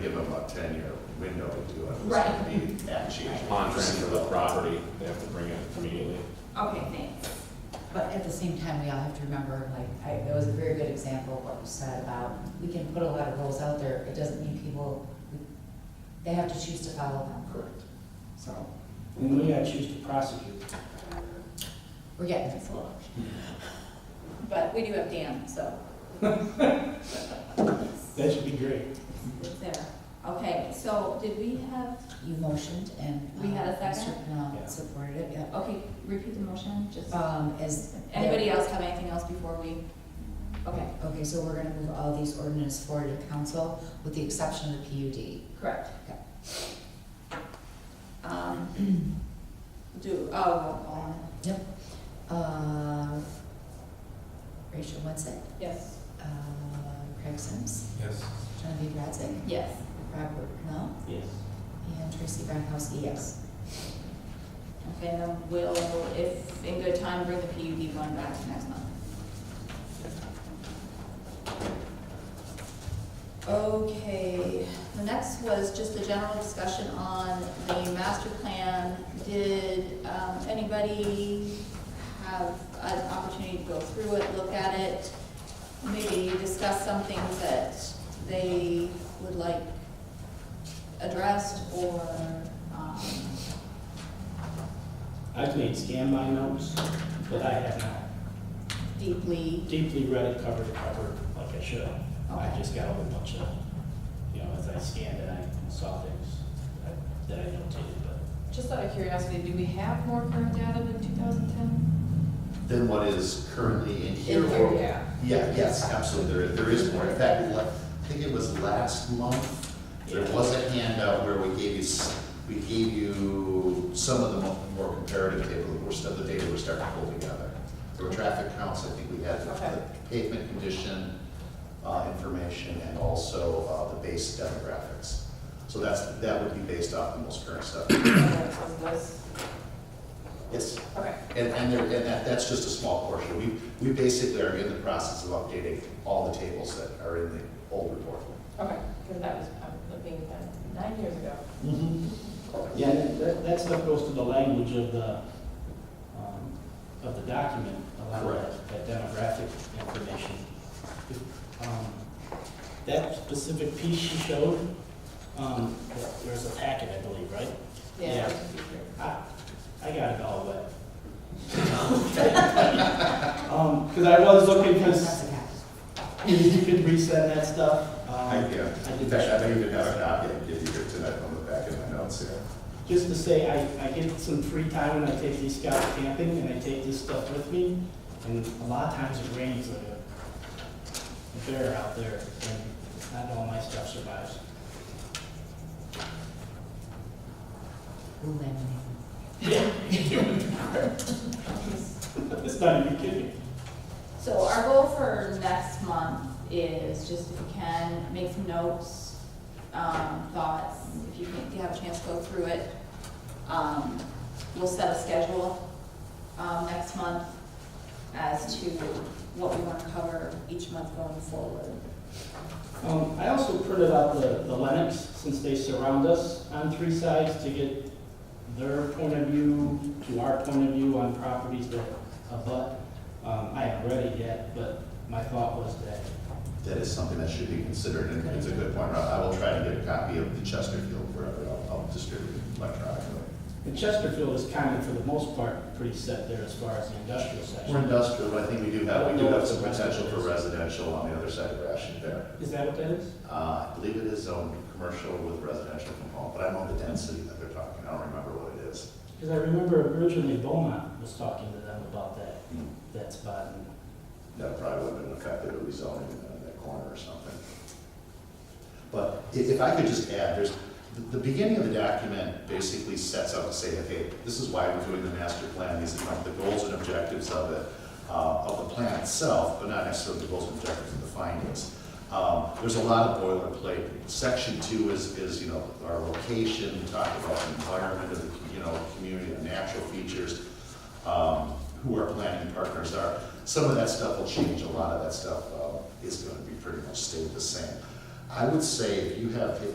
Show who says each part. Speaker 1: about a ten-year window to do it. so
Speaker 2: Right.
Speaker 1: it'd be actually a
Speaker 3: upon transfer of the
Speaker 1: single-
Speaker 3: property, they have to bring it immediately.
Speaker 2: Okay, thanks.
Speaker 4: But at the same time, we all have to remember, like, I, that was a very good example of what was said about, we can put a lot of rules out there, it doesn't mean people, they have to choose to follow them.
Speaker 5: Correct.
Speaker 4: So,
Speaker 5: And we gotta choose to prosecute.
Speaker 4: we're getting this
Speaker 2: But we do have Dan, so.
Speaker 5: That should be great.
Speaker 2: It's there. Okay, so did we have,
Speaker 4: You motioned and.
Speaker 2: We had a
Speaker 4: uh, Mr.
Speaker 2: second?
Speaker 4: Pennell
Speaker 5: Yeah.
Speaker 4: supported it, yeah.
Speaker 2: okay, repeat the motion, just,
Speaker 4: Um, as.
Speaker 2: anybody else have anything else before we? Okay,
Speaker 4: Okay, so we're gonna move all these ordinances forward to council with the exception of the
Speaker 2: correct.
Speaker 4: Okay.
Speaker 2: Um, do, oh, oh,
Speaker 4: PUD. Yep. Uh, Rachel Wetzel,
Speaker 2: yes,
Speaker 4: uh, Craig Sims,
Speaker 3: Yes.
Speaker 4: Genevieve Radzik,
Speaker 2: yes.
Speaker 4: Robert Pennell,
Speaker 5: Yes.
Speaker 4: And Tracy Gronkowski, yes.
Speaker 2: Okay, then we'll, if in good time, bring the PUD one back next month. Okay, the next was just a general discussion on the master plan. Did, um, anybody have an opportunity to go through it, look at it? Maybe discuss some things that they would like addressed or, um,
Speaker 5: I've made scan my notes, but I have not
Speaker 2: deeply.
Speaker 5: deeply read it cover to cover like I should. I
Speaker 2: Okay.
Speaker 5: just got a whole bunch of, you know, as I scanned it, I saw things that- that I notated, but
Speaker 6: Just out of curiosity, do we have more current data than 2010?
Speaker 1: Than what is currently in here.
Speaker 2: In here,
Speaker 1: or-
Speaker 6: yeah.
Speaker 1: Yeah, yes, absolutely, there, there is more. In fact, la- I think it was last month, there
Speaker 5: Yeah.
Speaker 1: was a handout where we gave you, s- we gave you some of the mo- more comparative data, the worst of the data we're starting to pull together. There were traffic counts, I think we had the
Speaker 6: Okay.
Speaker 1: pavement condition, uh, information, and also, uh, the base demographics. So that's, that would be based off the most current stuff.
Speaker 6: Of those?
Speaker 1: Yes?
Speaker 6: Okay,
Speaker 1: And, and there, and that, that's just a small portion. We, we basically are in the process of updating all the tables that are in the old report.
Speaker 6: okay, because that was, I'm looking at that nine years ago.
Speaker 5: Mm-hmm. Yeah, that- that, that stuff goes to the language of the, um, of the document, a lot of that- that demographic information. Um, That specific piece she showed, um, there's a packet, I believe, right? Yeah. I, I got it all wet. Um, cause I was looking, cause
Speaker 4: That's a cat.
Speaker 5: if you could resend that stuff, um,
Speaker 1: Thank you.
Speaker 5: I
Speaker 1: In
Speaker 5: did
Speaker 1: fact,
Speaker 5: that.
Speaker 1: I may even have a copy and give you it tonight on the back of my notes here.
Speaker 5: Just to say, I, I get some free time when I take these scouts camping and I take this stuff with me. And a lot of times it rains like a a bear out there and not all my stuff survives.
Speaker 4: We'll laminate them.
Speaker 5: It's not even kidding.
Speaker 2: So our goal for next month is just if you can, make some notes, um, thoughts, if you can, if you have a chance, go through it. Um, we'll set a schedule, um, next month as to what we want to cover each month going forward.
Speaker 5: Um, I also printed out the, the Lennox, since they surround us on three sides to get their point of view to our point of view on properties that abut. Um, I haven't read it yet, but my thought was that
Speaker 1: That is something that should be considered, and it's a good point, Rob. I will try to get a copy of the Chesterfield wherever I'll, I'll distribute it electronically.
Speaker 5: And Chesterfield is kind of, for the most part, pretty set there as far as the industrial
Speaker 1: We're
Speaker 5: section.
Speaker 1: industrial, but I think we do have, we do have some potential for residential on the other side of Rashid there.
Speaker 5: Is that what that is?
Speaker 1: Uh, I believe it is zoned commercial with residential component, but I don't know the density that they're talking, I don't remember what it is.
Speaker 5: Because I remember originally Beaumont was talking to them about that,
Speaker 1: Hmm.
Speaker 5: that spot. and
Speaker 1: That probably would have been effective, it was zoning in that corner or something. But if, if I could just add, there's, the, the beginning of the document basically sets out to say, okay, this is why we're doing the master plan, these are like the goals and objectives of it, uh, of the plan itself, but not necessarily the goals and objectives of the findings. Um, there's a lot of boilerplate. Section two is, is, you know, our location, we talk about the environment of the, you know, community, the natural features, um, who our planning partners are. Some of that stuff will change, a lot of that stuff, uh, is gonna be pretty much stayed the same. I would say if you have, if